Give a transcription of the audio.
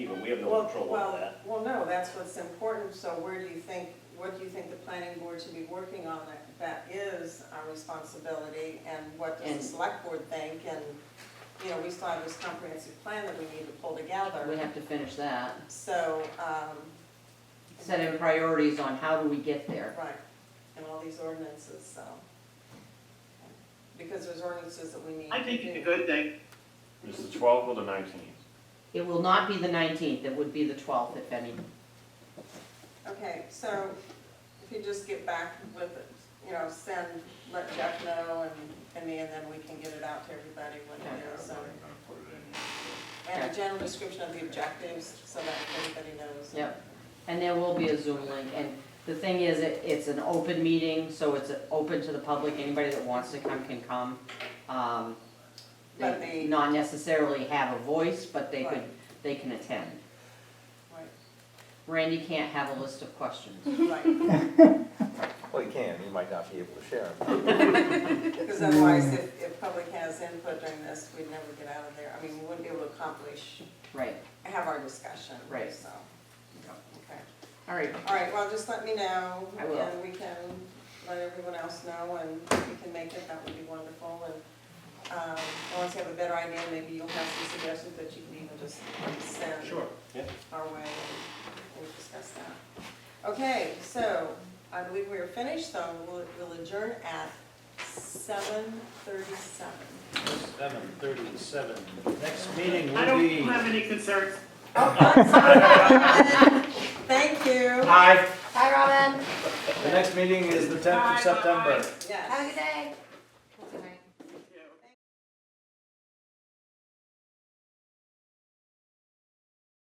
we have no Well, control well, over that. Well, no, that's what's important, so where do you think, what do you think the planning board should be working on that, that is our responsibility? And what does the And- select board think, and, you know, we still have this comprehensive plan that we need to pull We together. have to finish that, So, um, setting priorities on how do we get there. right, and all these ordinances, so. Because there's ordinances that we need to do. I think it's a good thing. Is the twelfth or the nineteenth? It will not be the nineteenth, it would be the twelfth, if any. Okay, so if you just get back with it, you know, send, let Jeff know and, and me, and then we can get it out to everybody when it is, so. And a general description of the objectives, so that everybody knows. Yep. And there will be a Zoom link, and the thing is, it, it's an open meeting, so it's open to the public, anybody that wants to come can come. Um, But they- They not necessarily have a voice, but they could, Right. they can attend. Right, Randy can't have a list of questions. right, Well, you can, you might not be able to share 'em. because otherwise, if, if public has input during this, we'd never get out of there, I mean, we wouldn't be able to accomplish, Right, have our discussion, Right. so. Okay. all right, All right, well, just let me know. I will. And we can let everyone else know, and if we can make it, that would be wonderful, and, um, once you have a better idea, maybe you'll have some suggestions that you can even just send Sure, yeah. our way, and we'll discuss that. Okay, so, I believe we are finished, so we'll, we'll adjourn at seven thirty-seven. Seven thirty-seven. Next meeting I will don't be. have any concerns. Thank you. Hi, Hi, Robin. the next meeting is the tenth of Bye, bye, bye. September. Yes. Have a good day.